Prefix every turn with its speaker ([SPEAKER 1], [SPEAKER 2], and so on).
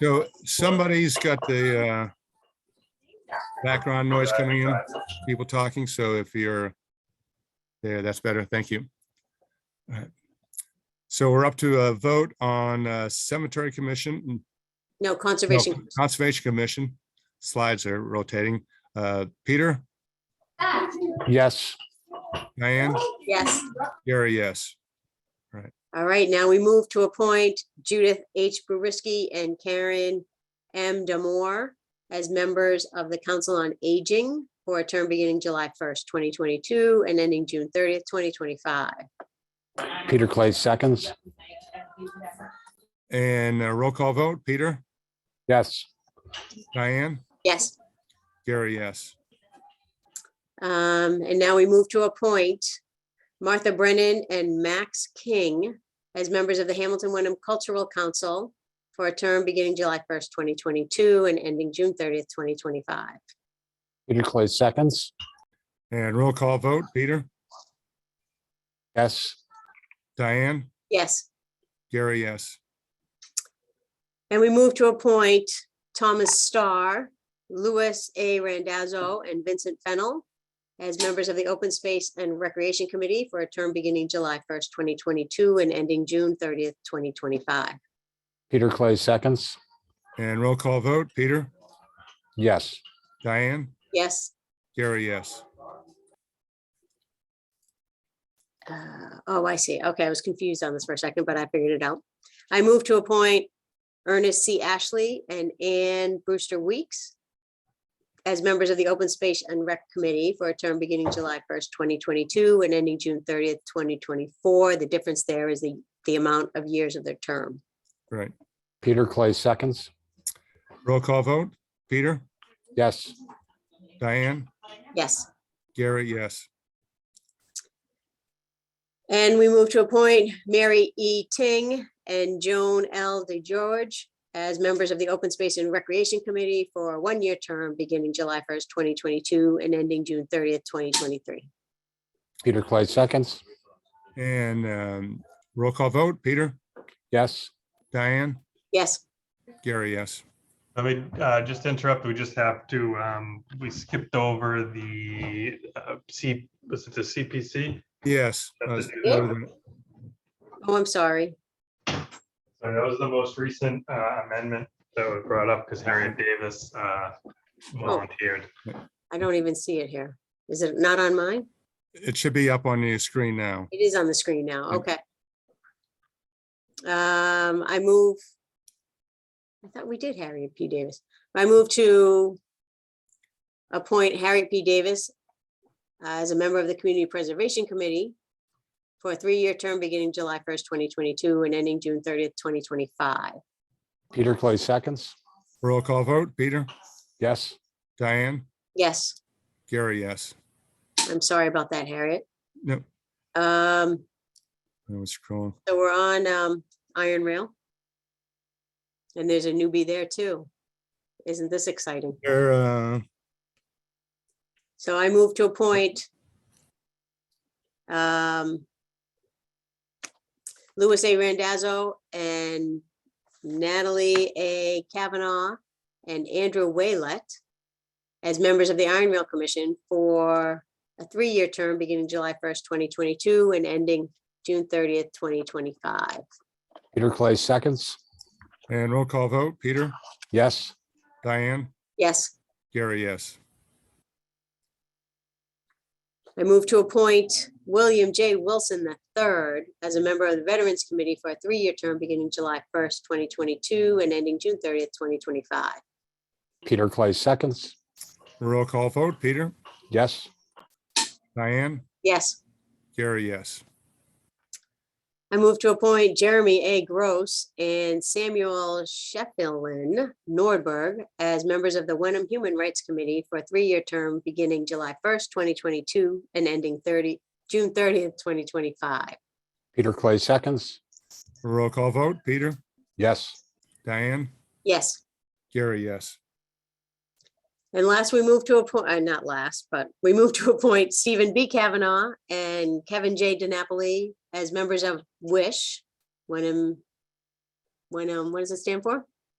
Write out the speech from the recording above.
[SPEAKER 1] So somebody's got the uh, background noise coming in, people talking, so if you're there, that's better. Thank you. All right. So we're up to a vote on uh, Cemetery Commission,
[SPEAKER 2] No,
[SPEAKER 1] no,
[SPEAKER 2] conservation.
[SPEAKER 1] Conservation Commission. Slides are rotating. Uh, Peter,
[SPEAKER 3] Yes,
[SPEAKER 1] Diane,
[SPEAKER 2] Yes.
[SPEAKER 1] Gary, yes.
[SPEAKER 2] All right, now we move to appoint Judith H. Brurisky and Karen M. Damore as members of the Council on Aging for a term beginning July 1st, 2022 and ending June 30th, 2025.
[SPEAKER 3] Peter Clay seconds.
[SPEAKER 1] And a roll call vote, Peter,
[SPEAKER 3] Yes,
[SPEAKER 1] Diane,
[SPEAKER 2] Yes.
[SPEAKER 1] Gary, yes.
[SPEAKER 2] Um, and now we move to appoint Martha Brennan and Max King as members of the Hamilton Wyndham Cultural Council for a term beginning July first, twenty twenty-two and ending June thirtieth, twenty twenty-five.
[SPEAKER 3] Peter Clay seconds.
[SPEAKER 1] And roll call vote, Peter,
[SPEAKER 3] Yes,
[SPEAKER 1] Diane,
[SPEAKER 2] Yes,
[SPEAKER 1] Gary, yes.
[SPEAKER 2] and we move to appoint Thomas Starr, Louis A. Randazzo, and Vincent Fennel as members of the Open Space and Recreation Committee for a term beginning July first, twenty twenty-two and ending June thirtieth, twenty twenty-five.
[SPEAKER 3] Peter Clay seconds.
[SPEAKER 1] And roll call vote, Peter,
[SPEAKER 3] Yes,
[SPEAKER 1] Diane,
[SPEAKER 2] Yes?
[SPEAKER 1] Gary, yes.
[SPEAKER 2] Uh, Oh, I see. Okay, I was confused on this for a second, but I figured it out. I move to appoint Ernest C. Ashley and Ann Brewster Weeks as members of the Open Space and Rec Committee for a term beginning July 1st, 2022 and ending June 30th, 2024. The difference there is the, the amount of years of their term.
[SPEAKER 1] Right.
[SPEAKER 3] Peter Clay seconds.
[SPEAKER 1] Roll call vote, Peter,
[SPEAKER 3] Yes,
[SPEAKER 1] Diane,
[SPEAKER 2] Yes.
[SPEAKER 1] Gary, yes.
[SPEAKER 2] And we move to appoint Mary E. Ting and Joan L. DeGeorge as members of the Open Space and Recreation Committee for a one-year term beginning July 1st, 2022 and ending June 30th, 2023.
[SPEAKER 3] Peter Clay seconds.
[SPEAKER 1] And um, roll call vote, Peter,
[SPEAKER 3] Yes,
[SPEAKER 1] Diane,
[SPEAKER 2] Yes,
[SPEAKER 1] Gary, yes.
[SPEAKER 4] Let me uh, just interrupt. We just have to, um, we skipped over the uh, C, was it the CPC?
[SPEAKER 1] Yes. uh,
[SPEAKER 2] Yeah. oh, I'm sorry.
[SPEAKER 4] So that was the most recent uh, amendment that was brought up because Harriet Davis uh, volunteered.
[SPEAKER 2] I don't even see it here. Is it not on mine?
[SPEAKER 1] It should be up on your screen now.
[SPEAKER 2] It is on the screen now. Okay. Um, I move. I thought we did Harriet P. Davis. I move to appoint Harriet P. Davis as a member of the Community Preservation Committee for a three-year term beginning July first, twenty twenty-two and ending June thirtieth, twenty twenty-five.
[SPEAKER 3] Peter Clay seconds.
[SPEAKER 1] Roll call vote, Peter,
[SPEAKER 3] Yes,
[SPEAKER 1] Diane,
[SPEAKER 2] Yes,
[SPEAKER 1] Gary, yes.
[SPEAKER 2] I'm sorry about that, Harriet.
[SPEAKER 1] No,
[SPEAKER 2] Um,
[SPEAKER 1] I was scrolling.
[SPEAKER 2] so we're on, um, Iron Rail. And there's a newbie there too. Isn't this exciting?
[SPEAKER 1] There, uh,
[SPEAKER 2] So I move to appoint um, Louis A. Randazzo and Natalie A. Kavanaugh and Andrew Waylett as members of the Iron Rail Commission for a three-year term beginning July 1st, 2022 and ending June 30th, 2025.
[SPEAKER 3] Peter Clay seconds.
[SPEAKER 1] and roll call vote, Peter,
[SPEAKER 3] Yes,
[SPEAKER 1] Diane,
[SPEAKER 2] Yes?
[SPEAKER 1] Gary, yes.
[SPEAKER 2] I move to appoint William J. Wilson III as a member of the Veterans Committee for a three-year term beginning July 1st, 2022 and ending June 30th, 2025.
[SPEAKER 3] Peter Clay seconds.
[SPEAKER 1] Roll call vote, Peter,
[SPEAKER 3] Yes,
[SPEAKER 1] Diane,
[SPEAKER 2] Yes,
[SPEAKER 1] Gary, yes.
[SPEAKER 2] I move to appoint Jeremy A. Gross and Samuel Shefflin Nordberg as members of the Wenham Human Rights Committee for a three-year term beginning July 1st, 2022 and ending 30, June 30th, 2025.
[SPEAKER 3] Peter Clay seconds.
[SPEAKER 1] Roll call vote, Peter,
[SPEAKER 3] Yes,
[SPEAKER 1] Diane,
[SPEAKER 2] Yes.
[SPEAKER 1] Gary, yes.
[SPEAKER 2] And last, we move to appoint, uh, not last, but we move to appoint Stephen B. Kavanaugh and Kevin J. DiNapoli as members of WISH. Wenham, Wenham, um, what does it stand for?